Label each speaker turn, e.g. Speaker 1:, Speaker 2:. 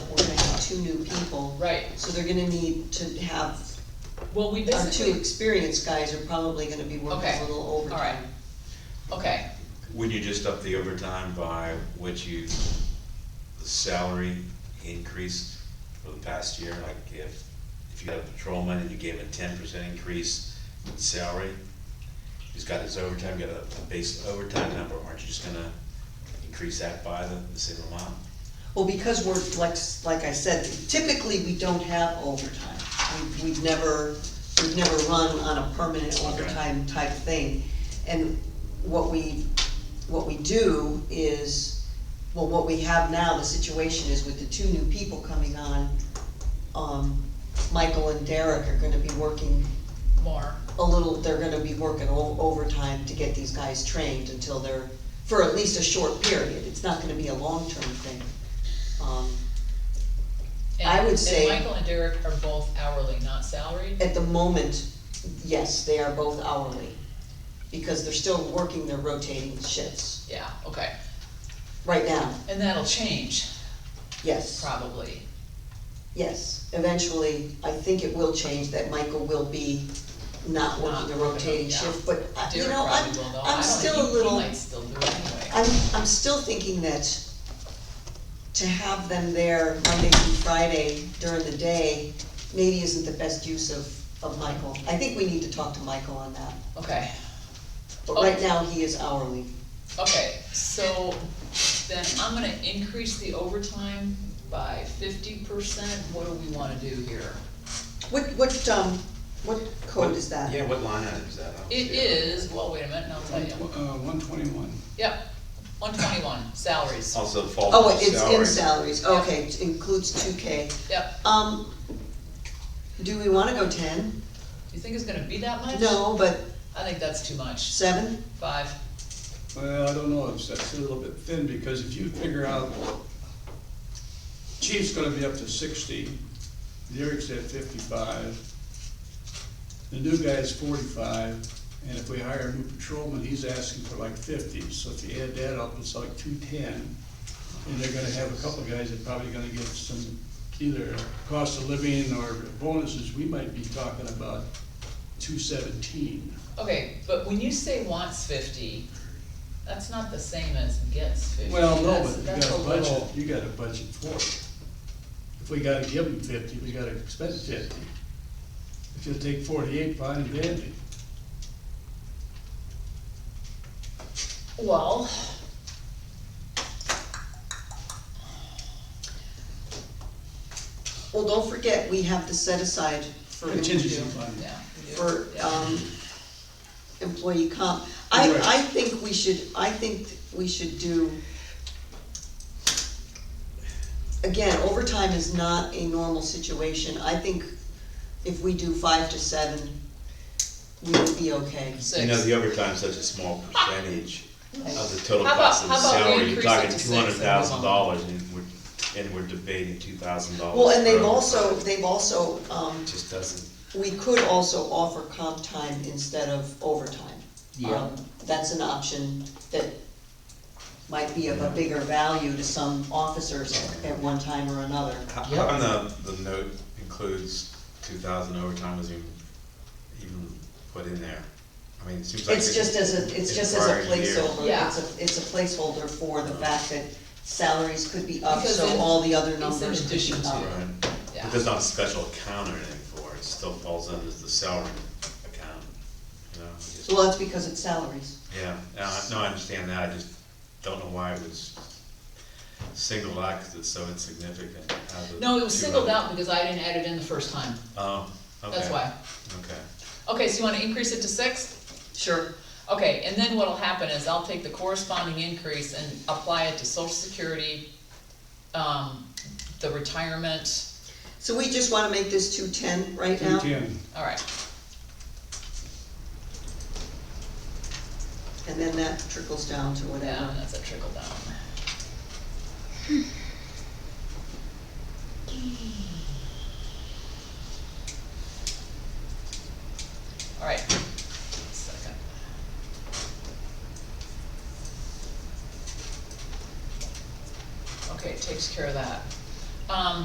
Speaker 1: two new people,
Speaker 2: Right,
Speaker 1: so they're gonna need to have,
Speaker 2: well, we
Speaker 1: our two
Speaker 2: basically,
Speaker 1: experienced guys are probably gonna be working
Speaker 2: Okay.
Speaker 1: a little
Speaker 2: all right,
Speaker 1: overtime.
Speaker 2: okay,
Speaker 3: Would you just up the overtime by what you, the salary increase for the past year? Like if, if you had a patrolman and you gave him a ten percent increase in salary, he's got his overtime, you got a, a base overtime number, aren't you just gonna increase that by the, the same amount?
Speaker 1: Well, because we're, like, like I said, typically, we don't have overtime. We- We've never, we've never run on a permanent overtime type thing. And what we, what we do is, well, what we have now, the situation is with the two new people coming on, um, Michael and Derek are gonna be working
Speaker 2: more,
Speaker 1: a little, they're gonna be working o- overtime to get these guys trained until they're, for at least a short period, it's not gonna be a long-term thing. Um,
Speaker 2: and,
Speaker 1: I would
Speaker 2: and
Speaker 1: say-
Speaker 2: Michael and Derek are both hourly, not salaried,
Speaker 1: At the moment, yes, they are both hourly, because they're still working their rotating shifts,
Speaker 2: yeah, okay,
Speaker 1: right now,
Speaker 2: and that'll change,
Speaker 1: yes,
Speaker 2: probably,
Speaker 1: yes. Eventually, I think it will change, that Michael will be not working the rotating
Speaker 2: Yeah.
Speaker 1: shift, but, uh, you
Speaker 2: Derek
Speaker 1: know,
Speaker 2: probably
Speaker 1: I'm,
Speaker 2: will though, I
Speaker 1: I'm
Speaker 2: don't,
Speaker 1: still a
Speaker 2: he, he
Speaker 1: little.
Speaker 2: might still do it anyway,
Speaker 1: I'm, I'm still thinking that to have them there Monday through Friday during the day, maybe isn't the best use of, of Michael. I think we need to talk to Michael on that,
Speaker 2: okay.
Speaker 1: but right now, he is hourly.
Speaker 2: Okay, so then I'm gonna increase the overtime by fifty percent, what do we wanna do here?
Speaker 1: What, what, um, what code is that?
Speaker 3: Yeah, what line item is that? I don't
Speaker 2: It
Speaker 3: see
Speaker 2: is, well, wait a minute, and I'll tell you,
Speaker 4: Uh, one twenty-one.
Speaker 2: yep, one twenty-one, salaries,
Speaker 3: Also fall
Speaker 1: Oh,
Speaker 3: under
Speaker 1: wait, it's in
Speaker 3: salary.
Speaker 1: salaries, okay, it includes two K.
Speaker 2: yep,
Speaker 1: Um, do we wanna go ten?
Speaker 2: you think it's gonna be that much?
Speaker 1: No, but
Speaker 2: I think that's too much,
Speaker 1: seven?
Speaker 2: five,
Speaker 4: Well, I don't know, it's, that's a little bit thin, because if you figure out, chief's gonna be up to sixty, Derek's at fifty-five, the new guy's forty-five, and if we hire a new patrolman, he's asking for like fifty, so if you add that up, it's like two-ten. And they're gonna have a couple guys that probably gonna get some, either cost of living or bonuses, we might be talking about two-seventeen.
Speaker 2: okay, but when you say wants fifty, that's not the same as gets fifty,
Speaker 4: Well, no,
Speaker 2: that's,
Speaker 4: but you
Speaker 2: that's a
Speaker 4: got a
Speaker 2: little,
Speaker 4: budget, you got a budget for it. If we gotta give them fifty, we gotta expend fifty. If you'll take forty-eight, fine and dandy.
Speaker 2: well.
Speaker 1: Well, don't forget, we have to set aside for
Speaker 4: Contingency
Speaker 1: interview.
Speaker 4: fund.
Speaker 2: Yeah. we do,
Speaker 1: for,
Speaker 2: yeah.
Speaker 4: uh,
Speaker 1: um, employee comp. I,
Speaker 4: Right.
Speaker 1: I think we should, I think we should do, again, overtime is not a normal situation. I think if we do five to seven, we would be okay.
Speaker 3: You know,
Speaker 2: Six,
Speaker 3: the overtime's such a small percentage of the total
Speaker 2: How about-
Speaker 3: cost of the
Speaker 2: how about we
Speaker 3: salary,
Speaker 2: increase
Speaker 3: you're
Speaker 2: it
Speaker 3: talking
Speaker 2: to six
Speaker 3: two
Speaker 2: and move on?
Speaker 3: hundred thousand dollars, and we're, and we're debating two thousand dollars.
Speaker 1: Well, and they've also, they've also, um,
Speaker 3: Just doesn't,
Speaker 1: we could also offer comp time instead of overtime.
Speaker 5: Yeah.
Speaker 1: Um, That's an option that might be of a bigger value to some officers at- at one time or another.
Speaker 3: how, how
Speaker 5: Yep.
Speaker 3: come the, the note includes two thousand overtime was even, even put in there? I mean, it seems like.
Speaker 1: It's
Speaker 3: it-
Speaker 1: just as a, it's just as a
Speaker 3: prior year.
Speaker 1: placeholder,
Speaker 2: Yeah.
Speaker 1: it's a, it's a placeholder for the fact that salaries could be up,
Speaker 2: Because
Speaker 1: so
Speaker 2: in-
Speaker 1: all the other
Speaker 2: in
Speaker 1: numbers could be
Speaker 2: addition to.
Speaker 1: up.
Speaker 3: Right.
Speaker 2: Yeah.
Speaker 3: But there's not a special account or anything for it, it still falls under the salary account, you know? it just-
Speaker 1: Well, that's because it's salaries.
Speaker 3: Yeah, uh, no, I understand that, I just don't know why it was singled out, because it's so insignificant. out of the
Speaker 2: no, it was
Speaker 3: two
Speaker 2: singled
Speaker 3: other-
Speaker 2: out because I didn't add it in the first time,
Speaker 3: Oh, okay.
Speaker 2: that's why.
Speaker 3: Okay.
Speaker 2: Okay, so you wanna increase it to six?
Speaker 1: Sure.
Speaker 2: Okay, and then what'll happen is I'll take the corresponding increase and apply it to social security, um, the retirement,
Speaker 1: So we just wanna make this two-ten right now?
Speaker 4: Two-ten.
Speaker 2: alright,
Speaker 1: And then that trickles down to
Speaker 2: yeah,
Speaker 1: whatever.
Speaker 2: that's a trickle down. Alright, second. Okay, takes care of that. Um,